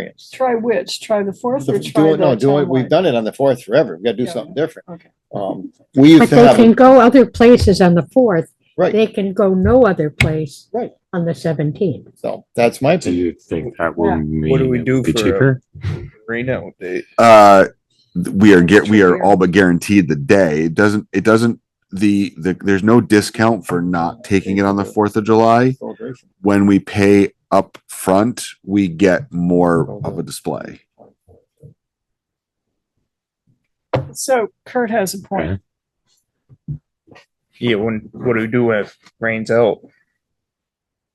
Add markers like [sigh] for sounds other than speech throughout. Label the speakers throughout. Speaker 1: variance.
Speaker 2: Try which? Try the fourth or
Speaker 1: The-
Speaker 2: try
Speaker 1: Do
Speaker 2: the
Speaker 1: it, no, do it, we've
Speaker 2: townwide?
Speaker 1: done it on the fourth forever. We've got to do
Speaker 2: Yeah,
Speaker 1: something different.
Speaker 2: Okay.
Speaker 1: Um, we
Speaker 3: But
Speaker 1: used to
Speaker 3: they
Speaker 1: have,
Speaker 3: can
Speaker 1: a-
Speaker 3: go other places on the fourth.
Speaker 1: right,
Speaker 3: They can go no other place.
Speaker 1: Right.
Speaker 3: On the seventeenth.
Speaker 1: so that's my
Speaker 4: Do
Speaker 1: opinion.
Speaker 4: you think that will
Speaker 2: Yeah.
Speaker 4: mean?
Speaker 5: What do we
Speaker 4: it
Speaker 5: do
Speaker 4: will Be
Speaker 5: for a-
Speaker 4: cheaper?
Speaker 5: Marina, would they-
Speaker 6: Uh, th- we are get, we are
Speaker 2: Sure.
Speaker 6: all but guaranteed the day. It doesn't, it doesn't, the, the, there's no discount for not taking it on the Fourth of July.
Speaker 1: Celebration.
Speaker 6: When we pay up front, we get more of a display.
Speaker 2: So Kurt has a
Speaker 4: Okay.
Speaker 2: point.
Speaker 5: yeah, when, what do we do if rains [laughs] out?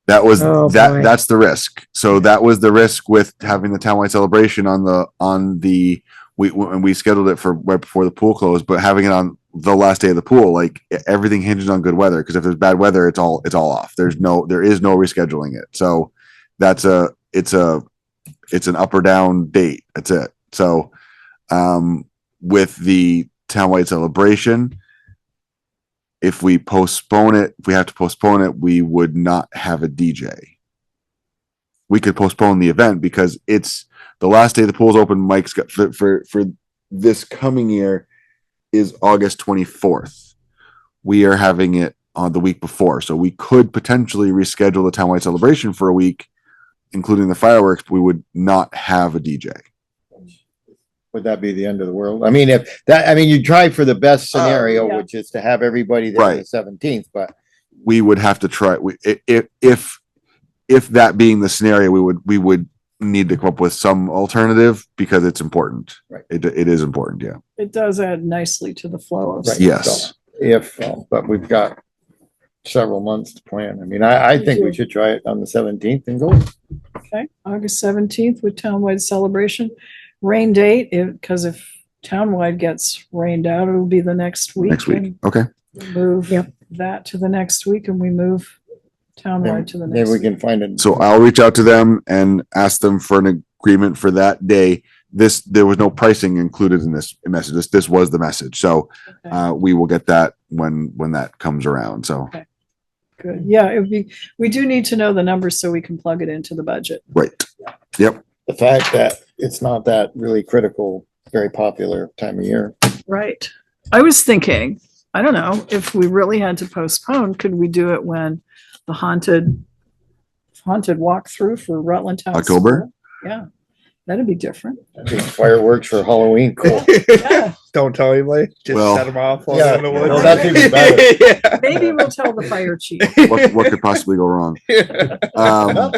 Speaker 6: That was,
Speaker 3: Oh,
Speaker 6: that,
Speaker 3: boy.
Speaker 6: that's the risk. So that was the risk with having the townwide celebration on the, on the, we, and we scheduled it for right before the pool closed, but having it on the last day of the pool, like e- everything hinges on good weather. Cause if there's bad weather, it's all, it's all off. There's no, there is no rescheduling it. So that's a, it's a, it's an up or down date. That's it. So, um, with the townwide celebration, if we postpone it, if we have to postpone it, we would not have a DJ. We could postpone the event because it's the last day the pool's open. Mike's got for for, for this coming year is August twenty fourth. We are having it on the week before, so we could potentially reschedule the townwide celebration for a week, including the fireworks. But we would not have a DJ.
Speaker 1: Would that be the end of the world? I mean, if that, I mean, you try for the best
Speaker 6: Uh,
Speaker 1: scenario,
Speaker 2: yeah.
Speaker 1: which is to have everybody there on the
Speaker 6: Right.
Speaker 1: seventeenth, but
Speaker 6: we would have to try we, i- i- if if that being the scenario we would we would need to come up with some alternative because it's important
Speaker 1: Right.
Speaker 6: it, it is important yeah
Speaker 2: It does add nicely to the flow of.
Speaker 1: Right.
Speaker 6: yes
Speaker 1: if, uh, but we've got several months to plan. I mean, I, I think we should try it on the seventeenth and go.
Speaker 2: Okay, August seventeenth with townwide celebration. Rain date, because if townwide gets rained out, it'll be the next week.
Speaker 6: next week
Speaker 2: and
Speaker 6: okay
Speaker 2: we Move
Speaker 3: Yep.
Speaker 2: that to the next week and we move townwide to the
Speaker 1: Maybe
Speaker 2: next.
Speaker 1: we
Speaker 2: week.
Speaker 1: can find it.
Speaker 6: so i'll reach out to them and ask them for an agreement for that day this there was no pricing included in this message this this was the message so
Speaker 2: Okay,
Speaker 6: uh we will get that when when that comes around so
Speaker 2: Good, yeah, it would be, we do need to know the numbers so we can plug it into the budget.
Speaker 6: right
Speaker 1: The fact that it's not that really critical, very popular time of year.
Speaker 2: Right. I was thinking, I don't know, if we really had to postpone, could we do it when the haunted haunted walkthrough for Rutland Town?
Speaker 6: October?
Speaker 2: School? Yeah, that'd be different.
Speaker 1: Fireworks for Halloween, cool.
Speaker 2: Yeah.
Speaker 5: Don't tell anybody, just
Speaker 6: Well-
Speaker 5: set them off. all
Speaker 1: Yeah,
Speaker 5: over the
Speaker 1: no,
Speaker 5: woods.
Speaker 2: that's even
Speaker 1: better.
Speaker 2: [laughs]
Speaker 5: Yeah. [laughs]
Speaker 2: Maybe we'll tell the fire chief.
Speaker 6: what, what could possibly go
Speaker 1: [laughs]
Speaker 6: wrong [laughs] um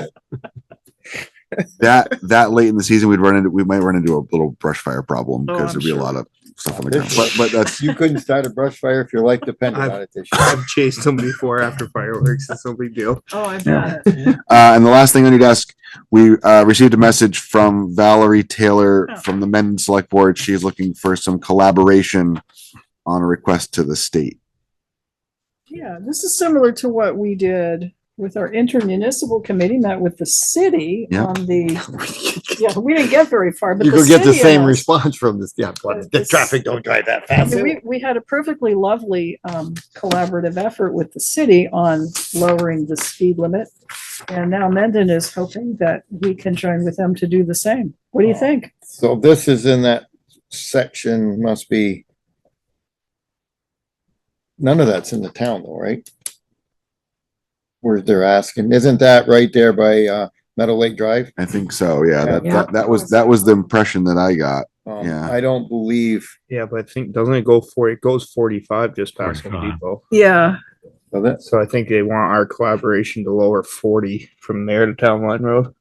Speaker 6: that that late in the season we'd run into we might run into a little brush fire problem
Speaker 2: Oh,
Speaker 6: because
Speaker 2: I'm
Speaker 6: there'd be
Speaker 2: sure.
Speaker 6: a lot of stuff on the
Speaker 1: There's-
Speaker 6: ground
Speaker 1: [laughs]
Speaker 6: but, but that's
Speaker 1: You couldn't start a brush fire if your life depended on it this year.
Speaker 5: I've chased them before after fireworks. It's no big deal.
Speaker 2: Oh, I've got it.
Speaker 6: uh and the last thing on your desk we uh received a message from valerie taylor
Speaker 2: Oh.
Speaker 6: from the men select board she's looking for some collaboration on a request to the state
Speaker 2: Yeah, this is similar to what we did with our intermunicipal committee, met with the city
Speaker 6: Yeah.
Speaker 1: [laughs]
Speaker 2: on the, yeah, we didn't get very far, but
Speaker 1: You
Speaker 2: the
Speaker 1: could get the
Speaker 2: city
Speaker 1: same
Speaker 2: announced-
Speaker 1: response from this, yeah, but the
Speaker 2: It's-
Speaker 1: traffic don't drive that
Speaker 2: I
Speaker 1: fast.
Speaker 2: mean, We, we had a perfectly lovely um, collaborative effort with the city on lowering the speed limit. And now Mendon is hoping that we can join with them to do the same. What do you think?
Speaker 1: So this is in that section, must be. None of that's in the town though, right? Where they're asking, isn't that right there by, uh, Meadow Lake Drive?
Speaker 6: i think so yeah, That,
Speaker 3: Yeah.
Speaker 6: that that was that was the impression that i got
Speaker 1: Um,
Speaker 6: Yeah.
Speaker 1: I don't believe,
Speaker 5: Yeah, but I think doesn't it go for it goes forty five just past Home
Speaker 4: 45.
Speaker 5: Depot.
Speaker 2: Yeah,
Speaker 1: so that's,
Speaker 5: So I think they want our collaboration to lower forty from there to Town Line Road.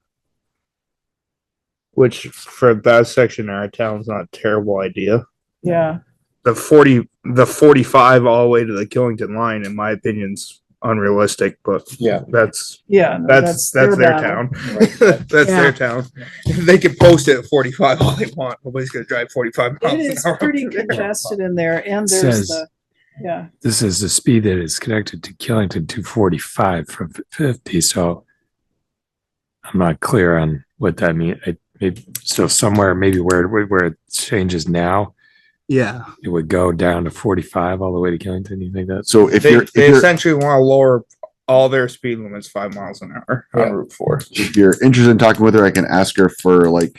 Speaker 5: Which for that section of our town's not a terrible idea.
Speaker 2: yeah.
Speaker 5: The forty the forty five all the way to the Killington line, in my opinion's unrealistic, but
Speaker 1: yeah.
Speaker 5: that's
Speaker 2: Yeah. no,
Speaker 5: that's that's their
Speaker 2: battle.
Speaker 5: town.
Speaker 1: right.
Speaker 5: [laughs] That's
Speaker 3: Yeah.
Speaker 5: their town. They can post it at forty five all they want. Nobody's gonna drive forty five miles
Speaker 2: It
Speaker 5: an
Speaker 2: is
Speaker 5: hour. [laughs]
Speaker 2: pretty
Speaker 5: up there.
Speaker 2: congested in there and there's
Speaker 7: Says-
Speaker 2: the, yeah,
Speaker 7: This is the speed that is connected to Killington two forty-five from f- fifty, so. I'm not clear on what that mean. I, maybe, so somewhere, maybe where, where where it changes now,
Speaker 5: Yeah.
Speaker 7: it would go down to forty-five all the way to Killington. You think that's?
Speaker 6: so if
Speaker 5: they,
Speaker 6: you're if
Speaker 5: they
Speaker 6: you're
Speaker 5: essentially want to lower all their speed limits five miles an hour on Route Four.
Speaker 6: if you're interested in talking with her i can ask her for like